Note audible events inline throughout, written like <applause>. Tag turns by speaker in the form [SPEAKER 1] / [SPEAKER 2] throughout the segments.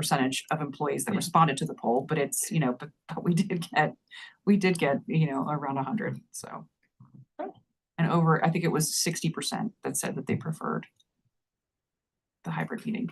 [SPEAKER 1] percentage of employees that responded to the poll, but it's, you know, but, but we did get, we did get, you know, around a hundred, so. And over, I think it was sixty percent that said that they preferred the hybrid meeting.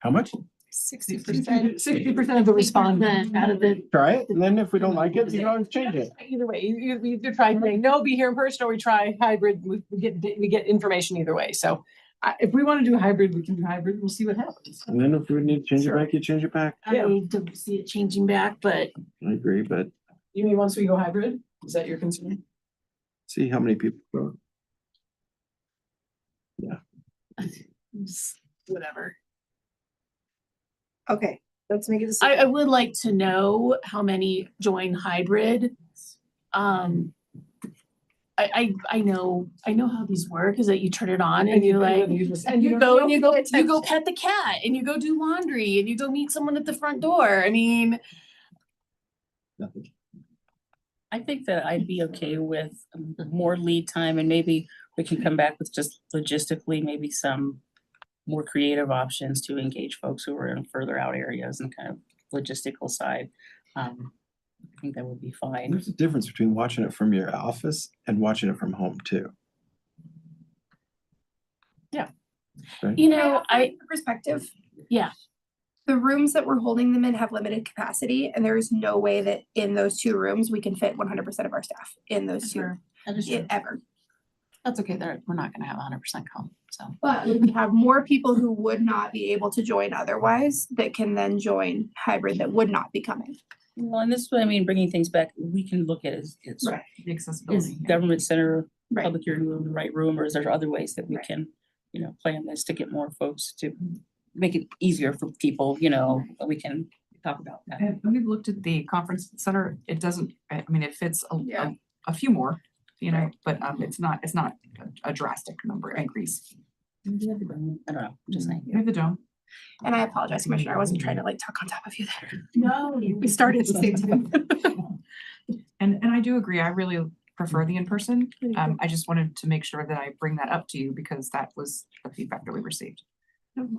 [SPEAKER 2] How much?
[SPEAKER 3] Sixty percent.
[SPEAKER 1] Sixty percent of the respondents.
[SPEAKER 3] Out of the,
[SPEAKER 2] Try it, and then if we don't like it, you can always change it.
[SPEAKER 4] Either way, you, you- we either try, saying, no, be here in person, or we try hybrid, we we get, we get information either way, so. I, if we wanna do hybrid, we can do hybrid, we'll see what happens.
[SPEAKER 2] And then if we need to change it back, you change it back.
[SPEAKER 3] I don't see it changing back, but
[SPEAKER 2] I agree, but
[SPEAKER 4] You mean, once we go hybrid, is that your concern?
[SPEAKER 2] see how many people. vote.
[SPEAKER 4] Whatever.
[SPEAKER 5] Okay, let's make a decision.
[SPEAKER 3] I, I would like to know how many join hybrid. Um. I, I, I know, I know how these work, is that you turn it on and you like,
[SPEAKER 4] And
[SPEAKER 3] and
[SPEAKER 4] you
[SPEAKER 3] you go,
[SPEAKER 4] don't.
[SPEAKER 3] and you go, you go pet the cat, and you go do laundry, and you go meet someone at the front door, I mean.
[SPEAKER 2] Nothing.
[SPEAKER 6] I think that I'd be okay with
[SPEAKER 5] Mm-hmm.
[SPEAKER 6] more lead time and maybe we can come back with just logistically, maybe some more creative options to engage folks who are in further out areas and kind of logistical side. Um, I think that would be fine.
[SPEAKER 2] There's a difference between watching it from your office and watching it from home too.
[SPEAKER 3] You know, I,
[SPEAKER 5] Perspective.
[SPEAKER 3] Yeah.
[SPEAKER 5] The rooms that we're holding them in have limited capacity and there is no way that in those two rooms, we can fit one hundred percent of our staff in those two, i- ever.
[SPEAKER 7] That's okay, there, we're not gonna have hundred percent come, so.
[SPEAKER 5] But we can have more people who would not be able to join otherwise that can then join hybrid that would not be coming.
[SPEAKER 6] Well, and this, is what I mean, bringing things back, we can look at is, is
[SPEAKER 5] Right.
[SPEAKER 1] The
[SPEAKER 6] is
[SPEAKER 1] accessibility. yeah.
[SPEAKER 6] government center,
[SPEAKER 5] Right.
[SPEAKER 6] public hearing room, the right room, or is there other ways that we
[SPEAKER 5] Right.
[SPEAKER 6] can, you know, plan this to get more folks to make it easier for people, you know, that we can talk about that.
[SPEAKER 1] And we've looked at the conference center, it doesn't, I I mean, it fits a,
[SPEAKER 5] Yeah.
[SPEAKER 1] a, a few more, you know, but, um, it's not, it's not a- a drastic number increase.
[SPEAKER 6] I don't know, just saying.
[SPEAKER 1] We have the dome.
[SPEAKER 5] And I apologize, Commissioner, I wasn't trying to like talk on top of you there.
[SPEAKER 3] no,
[SPEAKER 5] We started at the same time.
[SPEAKER 1] <laughs> And, and I do agree, I really prefer the in-person, um, I just wanted to make sure that I bring that up to you because that was the feedback that we received.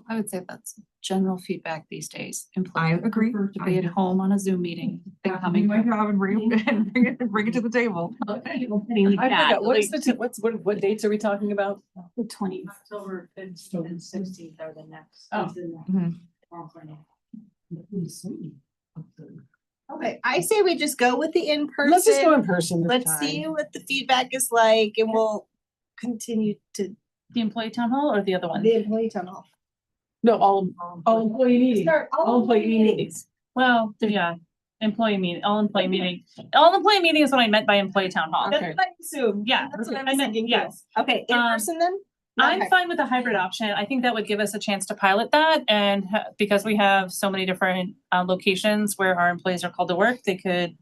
[SPEAKER 7] I would say that's general feedback these days.
[SPEAKER 1] I
[SPEAKER 7] Employees
[SPEAKER 1] agree.
[SPEAKER 7] prefer To be at home on a Zoom meeting. than coming
[SPEAKER 1] my job and bring it, and bring it, <laughs> bring it to the table.
[SPEAKER 4] I forgot, what's the, t- what's, what, what dates are we talking about?
[SPEAKER 7] The twenty.
[SPEAKER 8] October fifteenth and sixteenth are the next.
[SPEAKER 4] Oh.
[SPEAKER 8] is the next
[SPEAKER 1] Mhm.
[SPEAKER 8] conference.
[SPEAKER 9] Okay, I say we just go with the in-person.
[SPEAKER 4] Let's just go in person this
[SPEAKER 9] Let's see
[SPEAKER 4] time.
[SPEAKER 9] what the feedback is like and we'll continue to
[SPEAKER 6] The employee town hall or the other one? Um,
[SPEAKER 9] the employee tunnel.
[SPEAKER 4] No, all, all employee meetings, all employee meetings.
[SPEAKER 6] Well, yeah, employee meeting, all employee meeting, all employee meeting is what I meant by employee town hall.
[SPEAKER 9] That's what I assume.
[SPEAKER 6] Yeah,
[SPEAKER 9] That's what
[SPEAKER 6] I
[SPEAKER 9] I'm
[SPEAKER 6] meant,
[SPEAKER 9] thinking,
[SPEAKER 6] yes.
[SPEAKER 9] yes. Okay, in
[SPEAKER 6] Um,
[SPEAKER 9] person then? Not
[SPEAKER 6] I'm
[SPEAKER 9] hybrid.
[SPEAKER 6] fine with the hybrid option. I think that would give us a chance to pilot that and ha- because we have so many different uh locations where our employees are called to work, they could,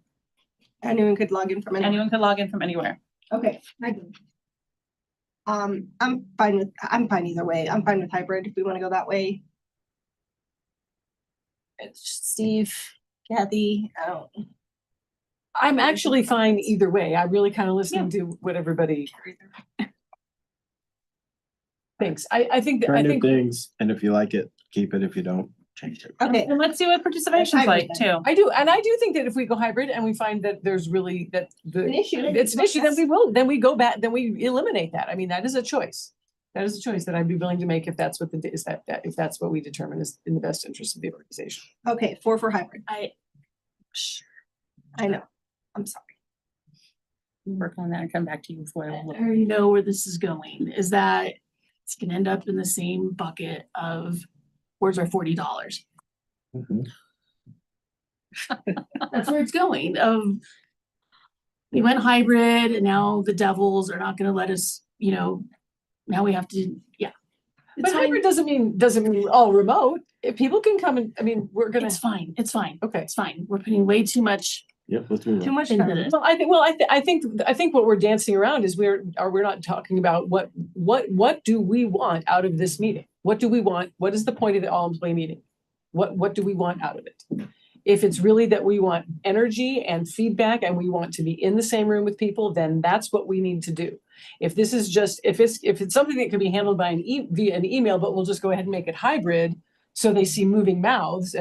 [SPEAKER 9] Anyone could log in from anywhere.
[SPEAKER 6] anyone could log in from anywhere.
[SPEAKER 9] Okay. I can. Um, I'm fine with, I'm fine either way. I'm fine with hybrid if we want to go that way. It's Steve, Kathy, I don't.
[SPEAKER 4] I'm actually fine either way. I really kind of listen to what everybody. Thanks. I, I think, that-
[SPEAKER 2] Try
[SPEAKER 4] I
[SPEAKER 2] new
[SPEAKER 4] think,
[SPEAKER 2] things, and if you like it, keep it. If you don't, change it.
[SPEAKER 9] Okay,
[SPEAKER 6] And let's see what participation's
[SPEAKER 9] Hybrid
[SPEAKER 6] like too.
[SPEAKER 4] I do, and I do think that if we go hybrid and we find that there's really, that
[SPEAKER 9] an
[SPEAKER 4] the,
[SPEAKER 9] issue.
[SPEAKER 4] it's an issue, then we will, then we go back, then we eliminate that. I mean, that is a choice. That is a choice that I'd be willing to make if that's what the, is that, that, if that's what we determine is in the best interest of the organization.
[SPEAKER 9] Okay, four for hybrid.
[SPEAKER 6] I-
[SPEAKER 9] I know, I'm sorry.
[SPEAKER 6] Work on that and come back to you before I will look.
[SPEAKER 3] I already know where this is going, is that it's gonna end up in the same bucket of where's our forty dollars?
[SPEAKER 2] Mhm.
[SPEAKER 3] That's where it's going of we went hybrid and now the devils are not gonna let us, you know, now we have to, yeah.
[SPEAKER 4] But
[SPEAKER 3] It's fine,
[SPEAKER 4] hybrid doesn't mean, doesn't mean all remote. If people can come and, I mean, we're gonna,
[SPEAKER 3] it's fine, it's fine,
[SPEAKER 4] okay.
[SPEAKER 3] it's fine. We're putting way too much
[SPEAKER 2] Yep, let's move
[SPEAKER 9] Too
[SPEAKER 2] on.
[SPEAKER 9] much.
[SPEAKER 3] into
[SPEAKER 9] time.
[SPEAKER 3] this.
[SPEAKER 4] Well, I think, well, I, thi- I think, I think what we're dancing around is we're, are, we're not talking about what, what, what do we want out of this meeting? What do we want? What is the point of the all employee meeting? What, what do we want out of it? If it's really that we want energy and feedback and we want to be in the same room with people, then that's what we need to do. If this is just, if it's, if it's something that can be handled by an e, via an email, but we'll just go ahead and make it hybrid, so they see moving mouths and